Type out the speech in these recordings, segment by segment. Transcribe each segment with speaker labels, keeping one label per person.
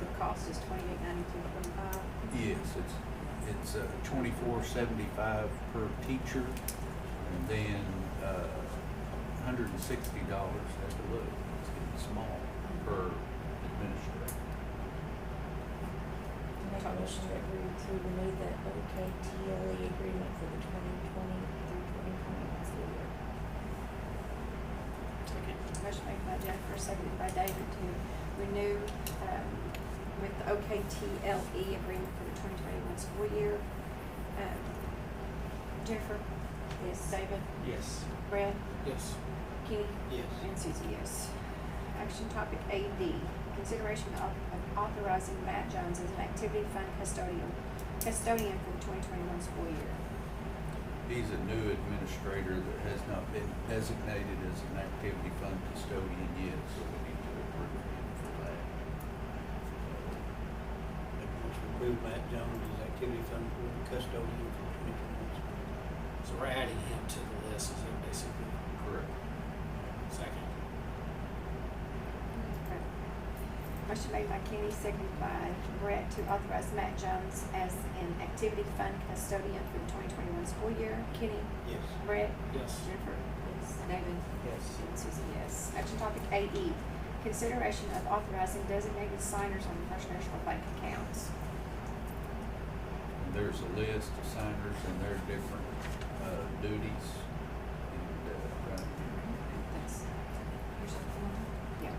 Speaker 1: the cost is twenty-eight ninety-two twenty-five.
Speaker 2: Yes, it's, it's uh, twenty-four seventy-five per teacher, and then, uh, hundred and sixty dollars, have to look, it's getting small, per administrator.
Speaker 3: Make a motion that we to renew the OKTLE agreement for the twenty twenty through twenty twenty-one school year.
Speaker 1: Motion made by Jennifer, seconded by David to renew, um, with the OKTLE E agreement for the twenty twenty-one school year. Um, Jennifer? Yes. David?
Speaker 4: Yes.
Speaker 1: Brad?
Speaker 4: Yes.
Speaker 1: Kenny?
Speaker 4: Yes.
Speaker 1: And Susie, yes. Action topic AD, consideration of of authorizing Matt Jones as an activity fund custodian, custodian for the twenty twenty-one school year.
Speaker 2: He's a new administrator that has not been designated as an activity fund custodian yet, so we need to approve him for that.
Speaker 4: Make a motion to approve Matt Jones as activity fund custodian for twenty twenty-one.
Speaker 5: So we're adding him to the list, is it basically?
Speaker 2: Correct.
Speaker 5: Second.
Speaker 1: Okay. Motion made by Kenny, seconded by Brett to authorize Matt Jones as an activity fund custodian for the twenty twenty-one school year. Kenny,
Speaker 4: Yes.
Speaker 1: Brett,
Speaker 5: Yes.
Speaker 1: Jennifer, David,
Speaker 4: Yes.
Speaker 1: and Susie, yes. Action topic AE, consideration of authorizing designated signers on the First National Bank accounts.
Speaker 2: Uh, And there's a list of signers and their different, uh, duties, and, uh, trying to
Speaker 1: Thanks. Yeah.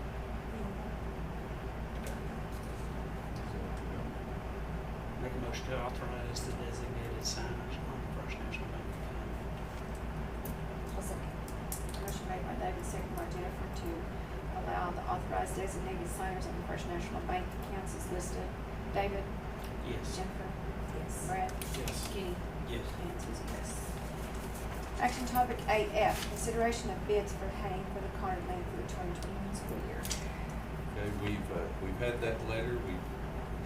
Speaker 2: uh,
Speaker 6: Make a motion to authorize the designated signers on the First National Bank account.
Speaker 3: I'll second.
Speaker 1: Motion made by David, seconded by Jennifer to allow the authorized designated signers on the First National Bank accounts is listed. David,
Speaker 6: Yes.
Speaker 1: Jennifer,
Speaker 3: Yes.
Speaker 1: Brett,
Speaker 5: Yes.
Speaker 1: Kenny,
Speaker 4: Yes.
Speaker 1: and Susie, yes. Action topic AF, consideration of bids for haying for the Carter Lane for the twenty twenty-one school year.
Speaker 2: Okay, we've, uh, we've had that letter, we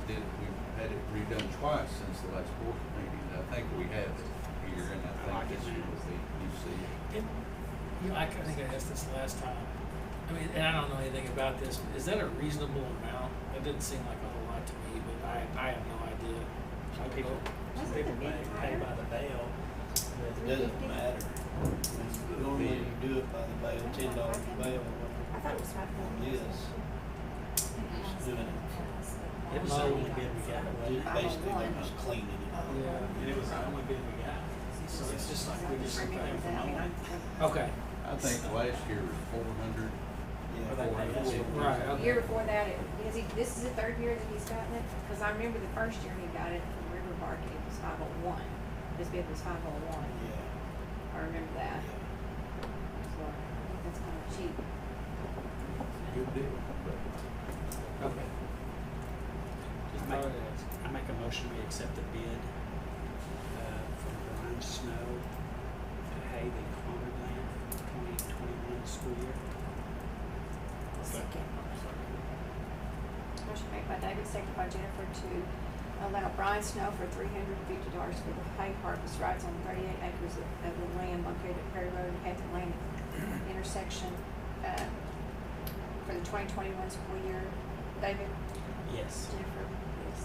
Speaker 2: did, we've had it redone twice since the last board meeting, and I think we have it here, and I
Speaker 5: I like
Speaker 2: think
Speaker 5: it,
Speaker 2: this year
Speaker 5: man.
Speaker 2: will be, you see it.
Speaker 5: It- You know, I I think I asked this last time. I mean, and I don't know anything about this, but is that a reasonable amount? That didn't seem like a whole lot to me, but I, I have no idea.
Speaker 4: Some people-
Speaker 5: Some
Speaker 1: Wasn't
Speaker 5: people
Speaker 1: it a
Speaker 5: may
Speaker 1: bit
Speaker 5: pay
Speaker 1: higher?
Speaker 5: by the bail,
Speaker 4: It
Speaker 5: but
Speaker 4: doesn't matter.
Speaker 2: That's the
Speaker 4: Normally
Speaker 2: bid.
Speaker 4: you do it by the bail, ten dollars bail.
Speaker 3: I thought it was five hundred.
Speaker 4: Yes. Just doing it.
Speaker 5: it was the only bid we got, wasn't it?
Speaker 4: Just Basically, they're just cleaning it up.
Speaker 5: Yeah, and it was the only bid we got. So it's just like we just took
Speaker 1: Remember
Speaker 5: that
Speaker 1: that, I mean,
Speaker 5: from Okay.
Speaker 2: I think last year was four hundred,
Speaker 4: Yeah.
Speaker 2: Well, that- that's what-
Speaker 5: Right,
Speaker 1: The
Speaker 5: okay.
Speaker 1: year before that, it, because he, this is the third year that he's gotten it, because I remember the first year he got it from River Bark, it was five oh one. His bid was five oh one,
Speaker 4: Yeah.
Speaker 1: I remember that,
Speaker 4: Yeah.
Speaker 1: so I think that's kind of cheap.
Speaker 2: good deal.
Speaker 5: Okay.
Speaker 6: Just make, I make a motion, we accept the bid, uh, from Brian Snow to hay the Concord land for the twenty twenty-one school year.
Speaker 1: Second. Motion made by David, seconded by Jennifer to allow Brian Snow for three hundred and fifty dollars for the hay harvest rights on thirty-eight acres of, of the land located at Prairie Road and Hathaway Lane intersection, uh, for the twenty twenty-one school year. David?
Speaker 6: Yes.
Speaker 1: Jennifer?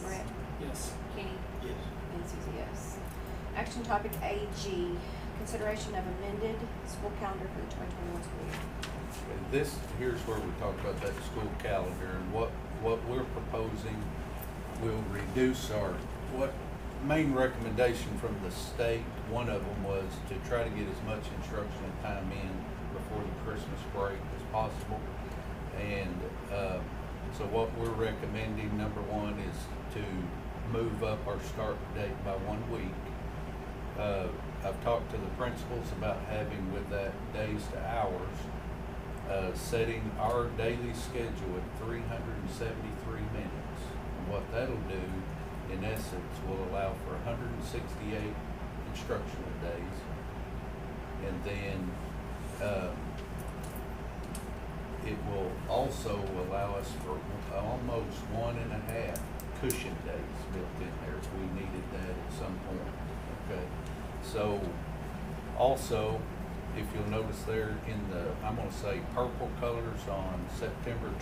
Speaker 1: Brett?
Speaker 5: Yes.
Speaker 1: Kenny?
Speaker 4: Yes.
Speaker 1: And Susie, yes. Action topic AG, consideration of amended school calendar for the twenty twenty-one school year.
Speaker 2: And This, here's where we talk about that school calendar and what, what we're proposing will reduce our, what main recommendation from the state, one of them was to try to get as much instructional time in before the Christmas break as possible. And, uh, so what we're recommending, number one, is to move up our start date by one week. Uh, I've talked to the principals about having with that days to hours, uh, setting our daily schedule at three hundred and seventy-three minutes. And What that'll do, in essence, will allow for hundred and sixty-eight instructional days. And then, um, it will also allow us for almost one and a half cushion days built in there if we needed that at some point, okay? So, also, if you'll notice there in the, I'm gonna say purple colors on September